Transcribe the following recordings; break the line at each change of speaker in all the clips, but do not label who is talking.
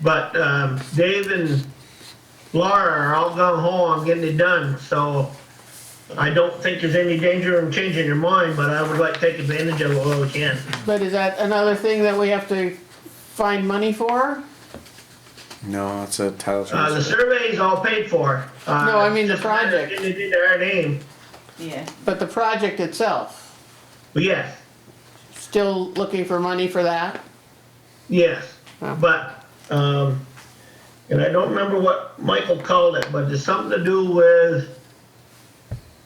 But um, Dave and Laura are all gung ho on getting it done, so I don't think there's any danger in changing your mind, but I would like to take advantage of it while we can.
But is that another thing that we have to find money for?
No, it's a title
Uh, the
transfer.
survey's all paid for. Uh,
No, I mean the project.
Getting it into our name,
Yeah,
But the project itself,
but yes,
still looking for money for that?
yes,
Huh.
but, um, and I don't remember what Michael called it, but it's something to do with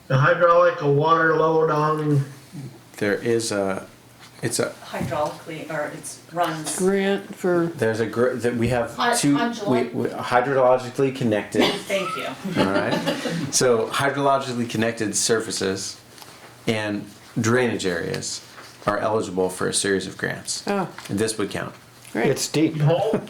the hydraulic or water load on
There is a, it's a,
hydraulically, or it's runs.
Grant for,
there's a, gr- that we have
Hy-
two, we,
hydrolo-
we- hydrologically connected,
Thank you.
all right? So hydrologically connected surfaces and drainage areas are eligible for a series of grants.
oh,
And this would count.
great.
It's deep.
hole.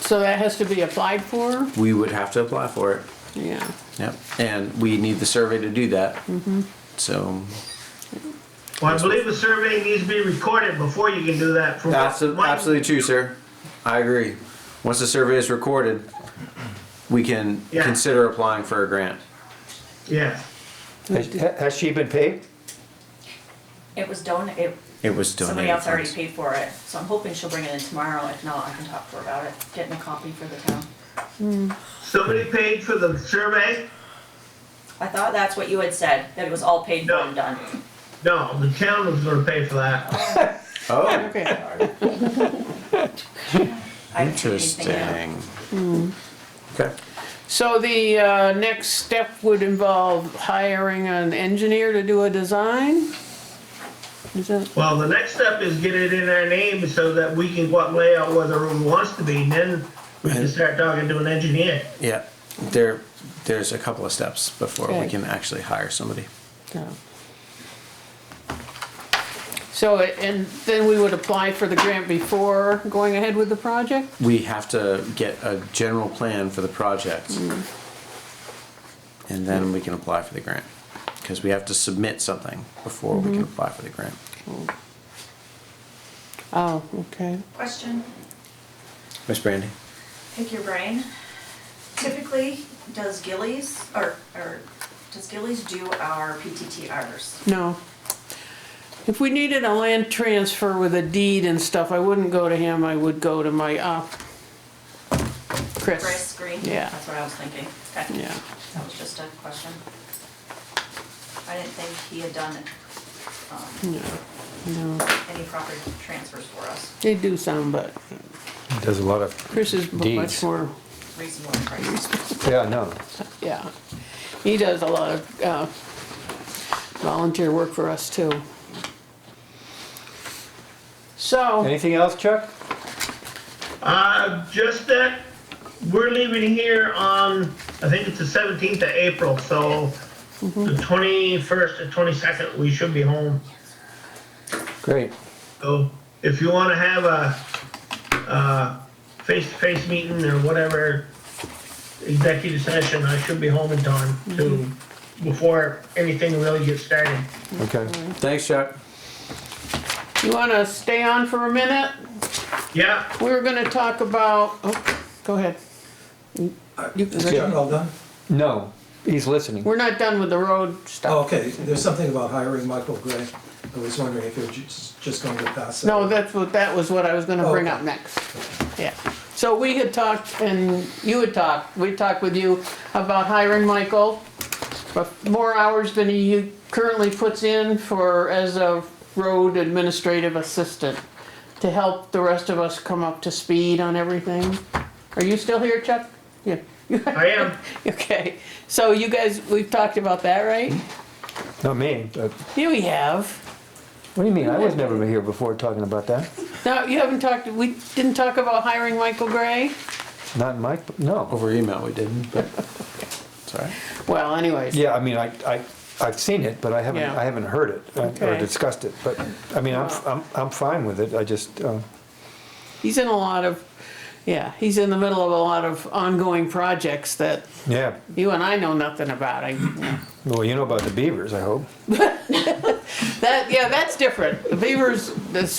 So that has to be applied for?
We would have to apply for it.
Yeah.
Yep. And we need the survey to do that.
Mm-hmm.
So
Well, I believe the survey needs to be recorded before you can do that. from what
Absolutely,
Mike-
absolutely true, sir. I agree. Once the survey is recorded, we can
Yeah.
consider applying for a grant.
Yeah,
Has has she been paid?
It was donated,
It was
somebody
donated
else already
funds.
paid for it, so I'm hoping she'll bring it in tomorrow. If not, I can talk to her about it, getting a copy for the town.
somebody paid for the survey?
I thought that's what you had said, that it was all paid for and done.
No, the town was gonna pay for that.
Oh,
Okay,
I haven't seen anything yet.
interesting.
Hmm.
Okay.
so the, uh, next step would involve hiring an engineer to do a design? Is that,
Well, the next step is get it in our name so that we can go out and lay out where the room wants to be, and then we can start talking to an engineer.
Yeah, there, there's a couple of steps before we
Okay.
can actually hire somebody.
no. So, it- and then we would apply for the grant before going ahead with the project?
We have to get a general plan for the project.
Hmm.
And then we can apply for the grant, because we have to submit something before we can
Mm-hmm.
apply for the grant.
Oh, okay.
Question,
Miss Brandy?
pick your brain. Typically, does Gillies, or, or, does Gillies do our PTTRs?
No. If we needed a land transfer with a deed and stuff, I wouldn't go to him, I would go to my, uh,
Grace
Chris.
Green?
Yeah.
That's what I was thinking. Okay.
Yeah.
That was just a question. I didn't think he had done, um,
No, no,
any proper transfers for us,
they do some, but
Does a lot of,
Chris is much
Deeds.
more,
reasonable prices.
yeah, no.
yeah. He does a lot of, uh, volunteer work for us too. So,
Anything else, Chuck?
Uh, just that, we're leaving here on, I think it's the seventeenth of April, so the twenty-first or twenty-second, we should be home.
Great.
So if you wanna have a, uh, face-to-face meeting or whatever, executive session, I should be home in time to, before anything really gets started.
Okay.
Thanks, Chuck.
you wanna stay on for a minute?
Yeah,
We were gonna talk about, oh, go ahead. You-
Is that all done?
No, he's listening.
We're not done with the road stuff.
Oh, okay, there's something about hiring Michael Gray. I was wondering if you're ju- just going to pass that.
No, that's what, that was what I was gonna bring up
Okay.
next. Yeah. So we had talked, and you had talked, we talked with you about hiring Michael, but more hours than he currently puts in for, as a road administrative assistant, to help the rest of us come up to speed on everything. Are you still here, Chuck? Yeah.
I am.
Okay, so you guys, we've talked about that, right?
Not me, but,
Yeah, we have.
what do you mean? I was never here before talking about that.
No, you haven't talked, we didn't talk about hiring Michael Gray?
Not Mike, no.
Over email we didn't, but it's all right.
Well, anyways.
Yeah, I mean, I, I, I've seen it, but I haven't,
Yeah.
I haven't heard it uh, or
Okay.
discussed it, but, I mean, I'm, I'm, I'm fine with it. I just, uh,
He's in a lot of, yeah, he's in the middle of a lot of ongoing projects that
yeah.
you and I know nothing about. I,
Well, you know about the beavers, I hope.
that, yeah, that's different. The Beavers, the